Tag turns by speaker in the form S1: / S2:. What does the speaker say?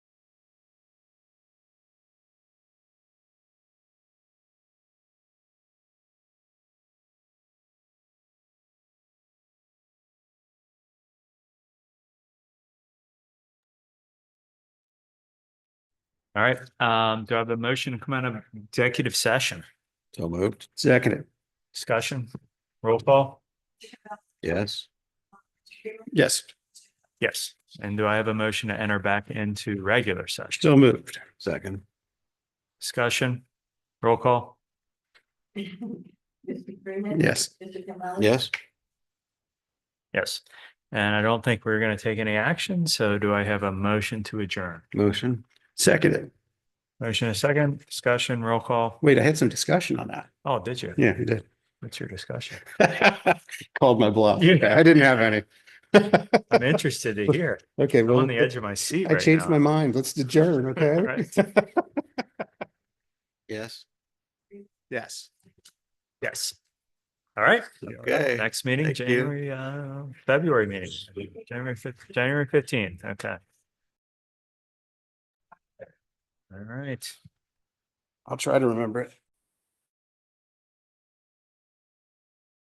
S1: All right, um, do I have a motion to come out of executive session?
S2: So moved.
S3: Second,
S1: Discussion, roll call?
S2: Yes.
S3: yes,
S1: Yes. And do I have a motion to enter back into regular session?
S3: so moved.
S2: Second.
S1: Discussion, roll call?
S4: Mr. Freeman.
S3: Yes.
S4: Mr. Campbell.
S2: Yes.
S1: Yes. And I don't think we're going to take any action, so do I have a motion to adjourn?
S2: Motion.
S3: Second,
S1: Motion a second, discussion, roll call?
S3: wait, I had some discussion on that.
S1: Oh, did you?
S3: Yeah, we did.
S1: What's your discussion?
S3: Called my bluff.
S1: You-
S3: I didn't have any.
S1: I'm interested to hear.
S3: Okay,
S1: I'm
S3: well,
S1: on the edge of my seat
S3: I
S1: right
S3: changed my
S1: now.
S3: mind. Let's adjourn, okay?
S1: Right.
S2: Yes.
S3: Yes.
S1: Yes. All right.
S2: Okay.
S1: Next meeting,
S2: Thank you.
S1: January, uh, February meeting, January fif- January fifteenth, okay. All right.
S3: I'll try to remember it.